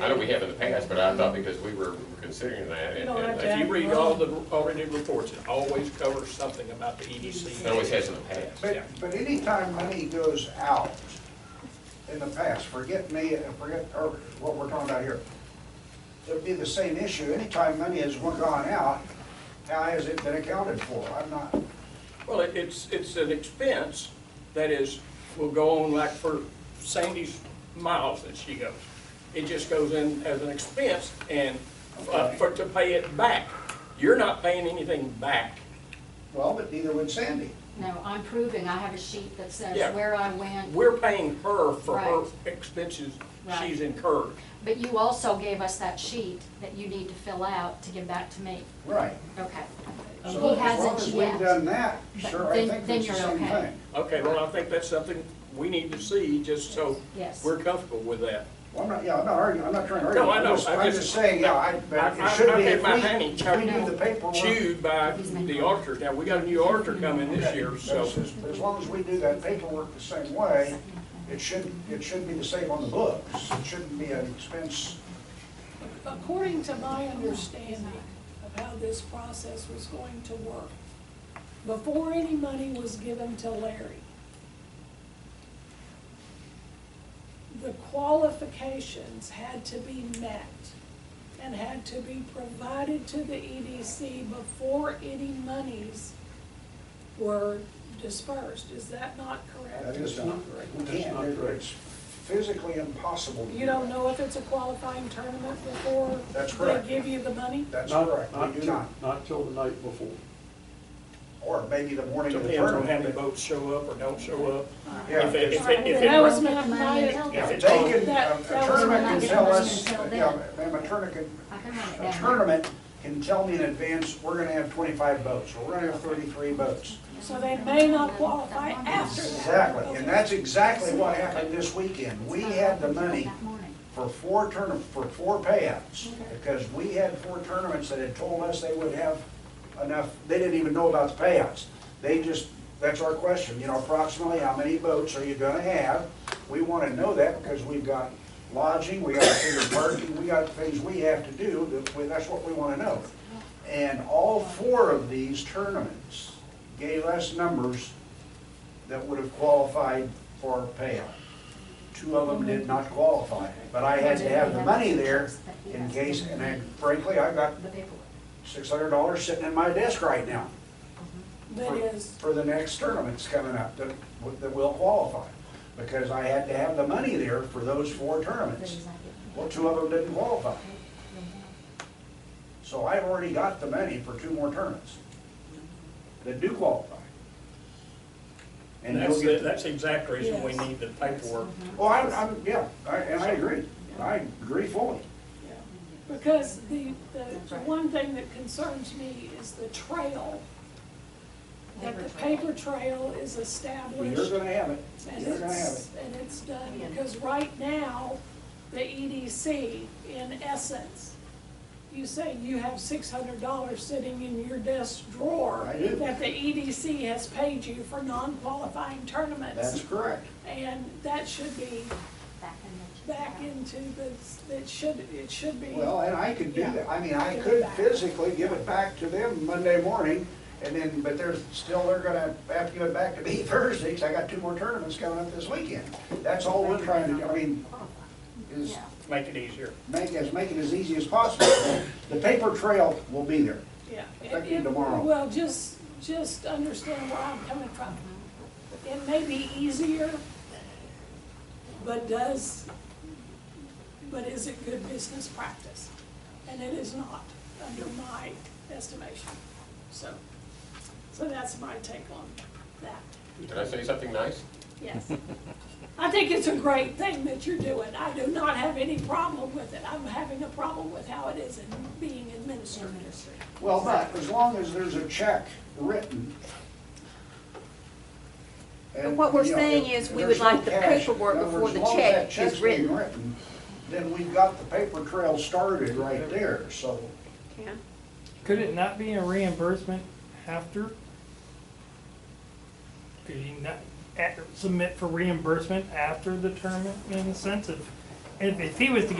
I know we have in the past, but I thought because we were considering that. You and don't have to and have- If you read all the already reports, it always covers something about the E EDC. It always has in the past. Yeah. But, but anytime money goes out in the past, forget me and forget, or what we're talking about here, it'd be the same issue. Anytime money has gone out, how has it been accounted for? I'm not, Well, it- it's, it's an expense that is, will go on like for Sandy's miles that she goes. It just goes in as an expense and uh, for, to pay it back. You're not paying anything back. well, but neither would Sandy. No, I'm proving, I have a sheet that says Yeah. where I went, We're paying her for her Right. expenses Right. she's incurred. but you also gave us that sheet that you need to fill out to give back to me. Right. Okay. So as He long hasn't as we've done yet. that, But sure, I then- think then it's the you're same okay. thing. Okay, well, I think that's something we need to see, just so Yes. we're comfortable with that. Well, I'm not, yeah, I'm not arguing, I'm not trying to argue. No, I I'm know. just- I I'm just- just saying, yeah, I, but I- it I- should I be, had if my we, hand in if we do the paperwork. Chewed by the auditor. Now, we got a new auditor coming this Okay, year, but so. it's just- As long as we do that paperwork the same way, it should, it should be the same on the books. It shouldn't be an expense. According to my understanding of how this process was going to work, before any money was given to Larry, the qualifications had to be met and had to be provided to the EDC before any monies were dispersed. Is that not correct? That is not correct. We can't, do it. it's physically impossible. to do You don't that. know if it's a qualifying tournament before That's correct. they give you the money? That's Not- correct. not We do till- not. Not till the night before. Or maybe the morning of the Depends on how the tournament. boats show up or don't show up. Yeah. If it, if it, if That was it, my, my, Yeah, if they it's on- can, That- a- that a was tournament when I can get tell mine us, until then. yeah, ma'am, a tournament can, I can write it a down. tournament can tell me in advance, we're gonna have twenty-five boats, or we're gonna have thirty-three boats. so they may not qualify after that. Exactly, and that's exactly what happened this weekend. We had the money That morning. for four tourna, for four payouts, because we had four tournaments that had told us they would have enough, they didn't even know about the payouts. They just, that's our question, you know, approximately how many boats are you gonna have? We wanna know that because we've got lodging, we gotta figure parking, we got things we have to do, that we- that's what we wanna know. And all four of these tournaments gave us numbers that would have qualified for payout. Two of them did not qualify, but I had to have the money there in case, and I- frankly, I got The paperwork. six hundred dollars sitting in my desk right now That is, for the next tournaments coming up that, that will qualify. Because I had to have the money there for those four That tournaments. is not getting- Well, two of them didn't qualify. So I've already got the money for two more tournaments that do qualify. and And that's, you'll the- get, that's the exact reason we Yes. need the paperwork. well, I'm, I'm, yeah, Oh, I- and I agree. I agree fully. yeah. because the, the, the one thing that concerns me is the trail. That the paper trail is Well, You're established gonna have it. and You're gonna have it. it's, and it's done, because right now, the EDC, in essence, you say you have six hundred dollars sitting in your desk drawer. I do. That the EDC has paid you for non-qualifying That's tournaments, correct. and that should be Back in the- back into the, it should, it should be. Well, and I could do Yeah. that. I mean, I Give it could back. physically give it back to them Monday morning, and then, but they're still, they're gonna have to give it back to me Thursday, 'cause I got two more tournaments coming up this weekend. That's all we're trying to, do. I mean, is Yeah. Make it easier. make, as make it as easy as possible. The paper trail will be there. Yeah. Effective It- it- tomorrow. Well, just, just understand where I'm coming from. It may be easier, but does, but is it good business practice? And it is not, under my estimation. So, so that's my take on that, Did I say something nice? yes. I think it's a great thing that you're doing. I do not have any problem with it. I'm having a problem with how it is in- being administered. Well, but as long as there's a check written. But what we're you know, saying if is we there's would like no the cash, paperwork in other before words, the as long as check that check's is being written. Then we've got the paper trail started right there, so Yeah. Could it not be a reimbursement after? Could you not a- submit for reimbursement after the tournament in a sense of, if, if he was to